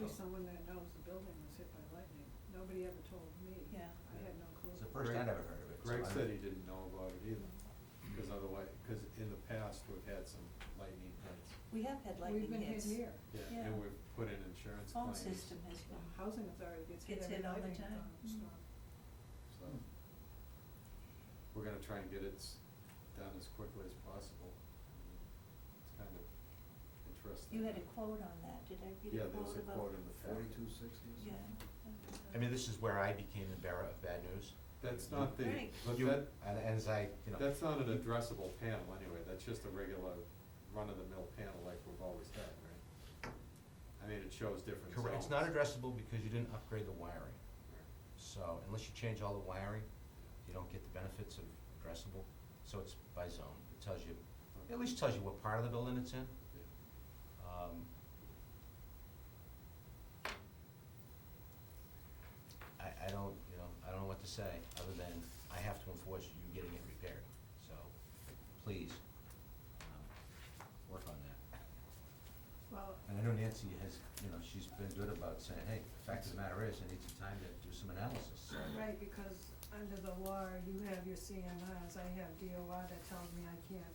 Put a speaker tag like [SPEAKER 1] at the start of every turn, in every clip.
[SPEAKER 1] one that knows the building was hit by lightning. Nobody ever told me.
[SPEAKER 2] Yeah.
[SPEAKER 1] I had no clue.
[SPEAKER 3] It's the first I've ever heard of it. so
[SPEAKER 4] Greg
[SPEAKER 3] I
[SPEAKER 4] said
[SPEAKER 3] don't-
[SPEAKER 4] he didn't know about it either, because
[SPEAKER 5] Mm-hmm.
[SPEAKER 4] otherwise, because in the past, we've had some lightning hits.
[SPEAKER 2] We have had
[SPEAKER 1] We've
[SPEAKER 2] lightning
[SPEAKER 1] been hit
[SPEAKER 2] hits.
[SPEAKER 1] here.
[SPEAKER 4] Yeah,
[SPEAKER 2] Yeah.
[SPEAKER 4] and we've put in insurance
[SPEAKER 2] Phone
[SPEAKER 4] claims.
[SPEAKER 2] system has
[SPEAKER 1] The
[SPEAKER 2] been,
[SPEAKER 1] housing authority gets hit
[SPEAKER 2] Gets
[SPEAKER 1] every
[SPEAKER 2] hit all the
[SPEAKER 1] lightning
[SPEAKER 2] time. Mm-hmm.
[SPEAKER 1] um, storm.
[SPEAKER 4] So,
[SPEAKER 3] Hmm.
[SPEAKER 4] we're gonna try and get it s- done as quickly as possible. It's kind of interesting.
[SPEAKER 2] you had a quote on that, did I read
[SPEAKER 4] Yeah,
[SPEAKER 2] a quote about?
[SPEAKER 4] there was a quote in the packet.
[SPEAKER 3] Forty-two sixty
[SPEAKER 2] Yeah.
[SPEAKER 3] or something?
[SPEAKER 2] that
[SPEAKER 5] I mean, this is where I became the bearer of bad news.
[SPEAKER 4] That's not the,
[SPEAKER 2] Right.
[SPEAKER 4] but
[SPEAKER 5] You-
[SPEAKER 4] that,
[SPEAKER 5] And as I, you know.
[SPEAKER 4] that's not an addressable panel anyway, that's just a regular run-of-the-mill panel like we've always had, right? I mean, it shows different zones.
[SPEAKER 5] Correct, it's not addressable because you didn't upgrade the wiring.
[SPEAKER 4] Right.
[SPEAKER 5] So unless you change all the wiring, you don't get the benefits of addressable. So it's by zone. It tells you, it at least tells you what part of the building it's in. Um, I, I don't, you know, I don't know what to say, other than I have to enforce you getting it repaired, so please, um, work on that.
[SPEAKER 1] Well,
[SPEAKER 5] And I know Nancy has, you know, she's been good about saying, hey, the fact of the matter is, I need some time to do some analysis, so.
[SPEAKER 1] right, because under the law, you have your CMRs, I have DOR that tells me I can't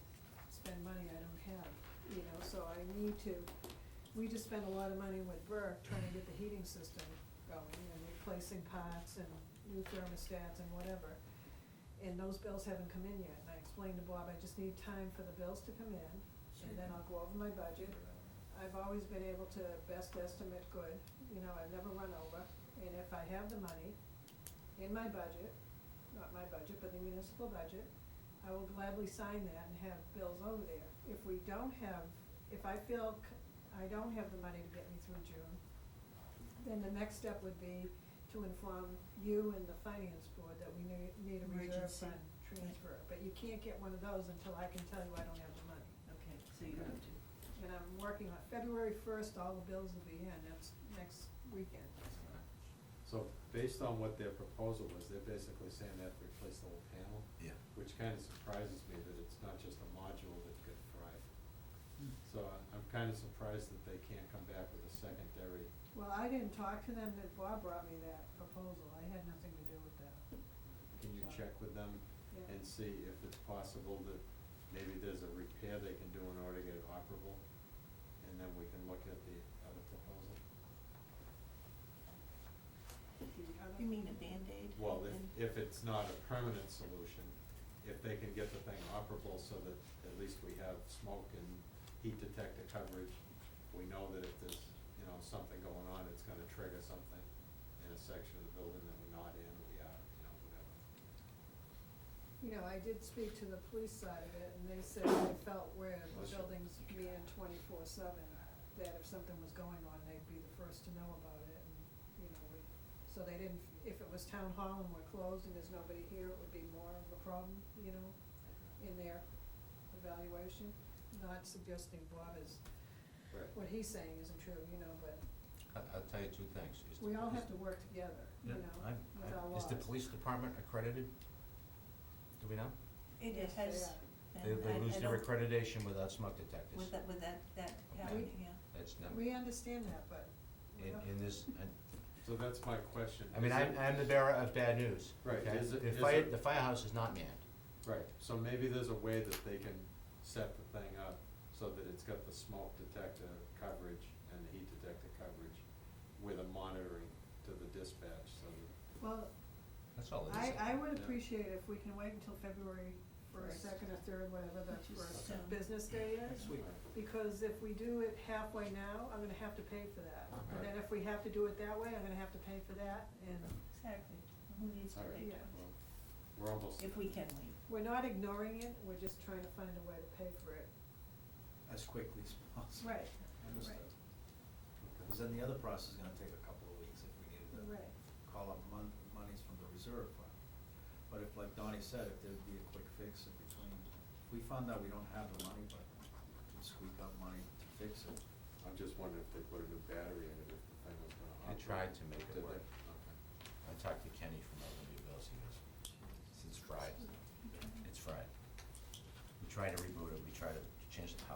[SPEAKER 1] spend money I don't have, you know, so I need to, we just spent a lot of money with Burke trying to get the heating system going and replacing pots and new thermostats and whatever. And those bills haven't come in yet, and I explained to Bob, I just need time for the bills to come in, and then I'll go over my budget, I've always been able to best estimate good, you know, I've never run over, and if I have the money in my budget, not my budget, but the municipal budget, I will gladly sign that and have bills over there. If we don't have, if I feel c- I don't have the money to get me through June, then the next step would be to inform you and the finance board that we need, need a reserve
[SPEAKER 2] Emergency.
[SPEAKER 1] fund transfer. But you can't get one of those until I can tell you I don't have the money.
[SPEAKER 2] Okay, so you have to,
[SPEAKER 1] And I'm working on, February first, all the bills will be in, that's next weekend.
[SPEAKER 5] Uh,
[SPEAKER 4] So based on what their proposal was, they're basically saying they have to replace the whole panel,
[SPEAKER 5] Yeah.
[SPEAKER 4] which kinda surprises me that it's not just a module that could thrive. So I- I'm kinda surprised that they can't come back with a secondary,
[SPEAKER 1] Well, I didn't talk to them, but Bob brought me that proposal, I had nothing to do with that.
[SPEAKER 4] can you check with them
[SPEAKER 1] Yeah.
[SPEAKER 4] and see if it's possible that maybe there's a repair they can do in order to get it operable? And then we can look at the other proposal.
[SPEAKER 1] The other-
[SPEAKER 2] you mean a Band-Aid?
[SPEAKER 4] Well,
[SPEAKER 2] and-
[SPEAKER 4] if, if it's not a permanent solution, if they can get the thing operable so that at least we have smoke and heat detector coverage, we know that if there's, you know, something going on, it's gonna trigger something in a section of the building that we're not in, we are, you know, whatever.
[SPEAKER 1] You know, I did speak to the police side of it, and they said they felt where the
[SPEAKER 4] Bless you.
[SPEAKER 1] buildings being twenty-four seven, that if something was going on, they'd be the first to know about it, and, you know, we, so they didn't, if it was town hall and we're closed and there's nobody here, it would be more of a problem, you know, in their evaluation. Not suggesting Bob is,
[SPEAKER 4] Right.
[SPEAKER 1] what he's saying isn't true, you know, but
[SPEAKER 5] I, I'll tell you two things. Is the
[SPEAKER 1] we all
[SPEAKER 5] police-
[SPEAKER 1] have to work together, you
[SPEAKER 5] Yeah,
[SPEAKER 1] know,
[SPEAKER 5] I'm,
[SPEAKER 1] with our
[SPEAKER 5] I'm,
[SPEAKER 1] laws.
[SPEAKER 5] is the police department accredited? Do we know?
[SPEAKER 2] It
[SPEAKER 1] Yes, they
[SPEAKER 2] has
[SPEAKER 1] are.
[SPEAKER 5] They,
[SPEAKER 2] been, I,
[SPEAKER 5] they
[SPEAKER 2] I
[SPEAKER 5] lose
[SPEAKER 2] don't-
[SPEAKER 5] their accreditation without smoke detectors.
[SPEAKER 2] With that, with that, that
[SPEAKER 5] Okay.
[SPEAKER 2] happening, yeah.
[SPEAKER 5] That's not,
[SPEAKER 1] We understand that, but we
[SPEAKER 5] in,
[SPEAKER 1] don't-
[SPEAKER 5] in this, and,
[SPEAKER 4] So that's my question.
[SPEAKER 5] I mean,
[SPEAKER 4] Is
[SPEAKER 5] I'm,
[SPEAKER 4] it-
[SPEAKER 5] I'm the bearer of bad news.
[SPEAKER 4] Right,
[SPEAKER 5] okay?
[SPEAKER 4] is it-
[SPEAKER 5] The
[SPEAKER 4] is
[SPEAKER 5] fire,
[SPEAKER 4] it-
[SPEAKER 5] the firehouse is not manned.
[SPEAKER 4] Right, so maybe there's a way that they can set the thing up so that it's got the smoke detector coverage and the heat detector coverage with a monitoring to the dispatch, so that
[SPEAKER 1] Well,
[SPEAKER 5] That's all it
[SPEAKER 1] I,
[SPEAKER 5] is.
[SPEAKER 1] I would
[SPEAKER 4] Yeah.
[SPEAKER 1] appreciate if we can wait until February first,
[SPEAKER 2] First.
[SPEAKER 1] second or third, whatever the
[SPEAKER 2] Which is
[SPEAKER 1] first
[SPEAKER 2] soon.
[SPEAKER 1] business day is.
[SPEAKER 4] Next week.
[SPEAKER 1] Because if we do it halfway now, I'm gonna have to pay for that. And then
[SPEAKER 4] Right.
[SPEAKER 1] if we have to do it that way, I'm gonna have to pay for that. And
[SPEAKER 2] Exactly, who needs to
[SPEAKER 4] All right,
[SPEAKER 2] wait?
[SPEAKER 1] Yeah.
[SPEAKER 4] well, we're almost.
[SPEAKER 2] If we can wait.
[SPEAKER 1] we're not ignoring it, we're just trying to find a way to pay for it.
[SPEAKER 3] As quickly as possible.
[SPEAKER 1] Right,
[SPEAKER 3] Understood.
[SPEAKER 1] right.
[SPEAKER 3] Because then the other process is gonna take a couple of weeks if we needed to
[SPEAKER 1] Right.
[SPEAKER 3] call up mon- monies from the reserve fund. But if, like Donnie said, if there'd be a quick fix in between, if we found out we don't have the money, but we can squeak up money to fix it.
[SPEAKER 4] I'm just wondering if they put a new battery in it, if the thing was gonna
[SPEAKER 5] They
[SPEAKER 4] operate.
[SPEAKER 5] tried to make it
[SPEAKER 4] Did they?
[SPEAKER 5] work.
[SPEAKER 4] Okay.
[SPEAKER 5] I talked to Kenny from Elderly Bills, he goes, it's fried, it's fried. We try to reboot it, we try to change the